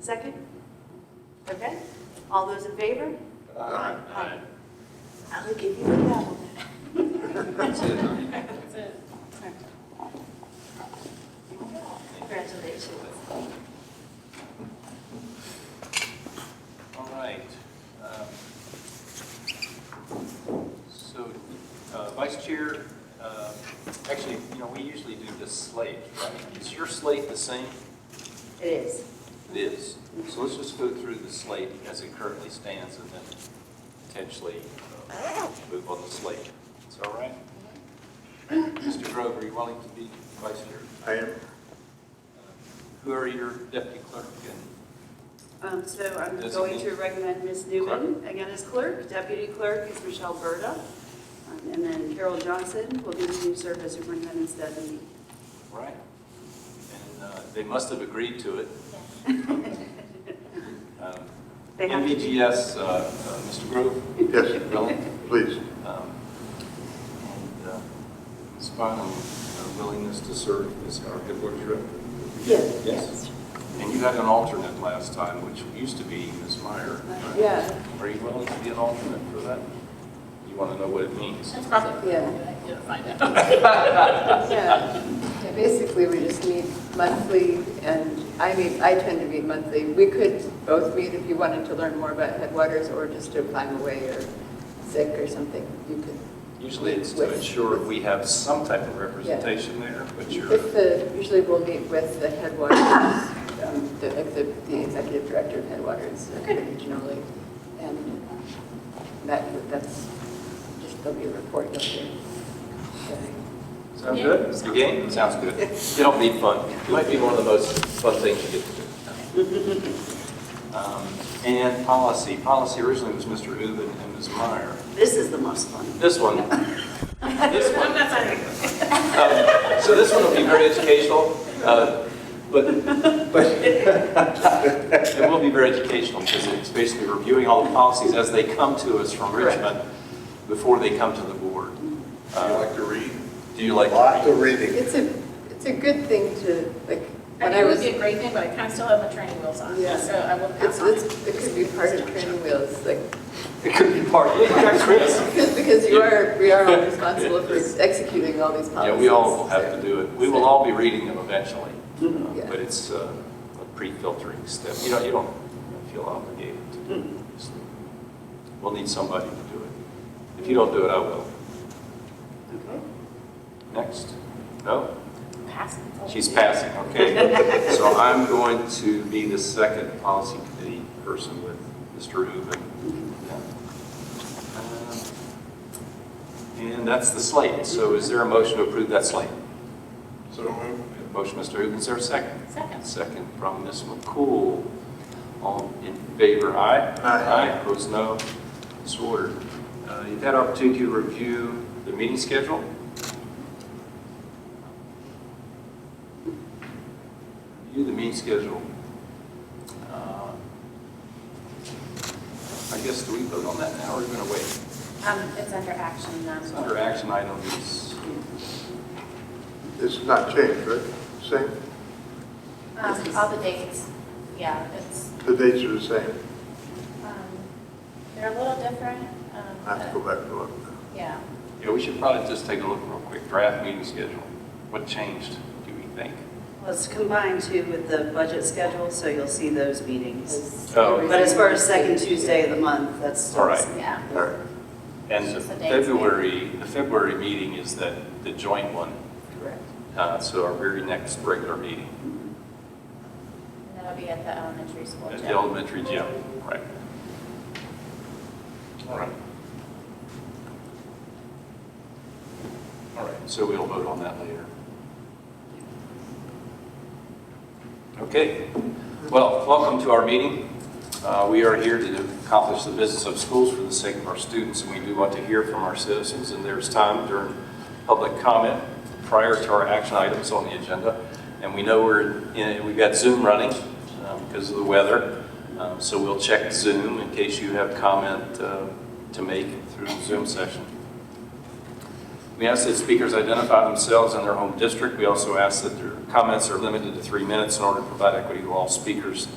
Second? Okay, all those in favor? Aye. Aye. I'm gonna give you a gavel then. That's it, huh? That's it. Congratulations. All right. Um, So, uh, Vice Chair, um, actually, you know, we usually do this slate, right? Is your slate the same? It is. It is. So let's just go through the slate as it currently stands and then potentially uh, move on the slate. Is that all right? Mr. Grove, are you willing to be Vice Chair? I am. Who are your deputy clerk and Um, so I'm Designate. going to recommend Ms. Newman again as clerk. Deputy clerk is Michelle Berta. Um, And then Carol Johnson will continue to serve as superintendent's designee. Right. And uh, they must have agreed to it. Um, They have to be- NVGS, uh, uh, Mr. Grove? Yes, Really? please. Um, And uh, it's fine, um, uh, willingness to serve as our headquarters rep. Yes. Yes. And you had an alternate last time, which used to be Ms. Meyer. right? Yeah. Are you willing to be an alternate for that? You want to know what it means? That's probably. Yeah. You'll find out. Yeah, Yeah, basically, we just meet monthly, and I meet, I tend to meet monthly. We could both meet if you wanted to learn more about headwaters, or just if I'm away or sick or something, you could. Usually it's to With- ensure we have some type of representation there, but you're. With the, usually we'll meet with the headwaters, um, the, like the, the executive director of headwaters uh, regionally, and that, that's, just there'll be a report you'll hear. Yeah. Sound good? The game? Sounds good. It'll be fun. It might be one of the most fun things you get to do. Um, And policy. Policy originally was Mr. Uven and Ms. Meyer. This is the most fun. This one. um, This one. Um, So this one will be very educational, uh, but, but, it will be very educational because it's basically reviewing all the policies as they come to us from Richmond before they come to the board. Do you Uh, like to read? Do you like? to Lots read? of reading. It's a, it's a good thing to, like, I when think I it would was, be it's, a great thing, but I kind of still have my training wheels on, Yeah. so I will pass on it. it's, it could be part of training wheels, like, It could be part, yeah, Chris. because, because you are, we are all responsible for executing all these policies. Yeah, we all will have to so- do it. We will all be reading them eventually, Yeah. but it's uh, a pre-filtering step. You don't, you don't feel obligated to do it. obviously. We'll need somebody to do it. If you don't do it, I will. Next? No? Pass it. She's passing, okay. So I'm going to be the second policy committee person with Mr. Uben. Yeah. Um, And that's the slate. So is there a motion to approve that slate? So moved. Motion, Mr. Uben, is there a second? Second. Second from Ms. McCool. All in favor, aye? Aye. Aye, opposed, no. It's ordered. Uh, You've had opportunity to review the meeting schedule? Review the meeting schedule. Uh, I guess, do we vote on that now, or are we going to wait? Um, it's under action, um, It's under action items. It's not changed, right? Same, um, all the dates, yeah, it's, the dates are the same. um, they're a little different, um, I have to go but- back to look. yeah. Yeah, we should probably just take a look real quick, draft meeting schedule. What changed, do we think? Let's combine two with the budget schedule, so you'll see those meetings. Oh. But as far as second Tuesday of the month, that's. still the same. Yeah. All right. And It's the just the dates, yeah. February, the February meeting is that, the joint one, Correct. uh, so our very next regular meeting And that'll be at the elementary school. at the gym. elementary gym, right? All right. All right, so we'll vote on that later. Okay, well, welcome to our meeting. Uh, We are here to accomplish the business of schools for the sake of our students, and we do want to hear from our citizens, and there's time during public comment prior to our action items on the agenda. And we know we're, in- we've got Zoom running um, because of the weather, Um, so we'll check Zoom in case you have comment uh, to make through the Zoom session. We ask that speakers identify themselves and their home district. We also ask that their comments are limited to three minutes in order to provide equity to all speakers.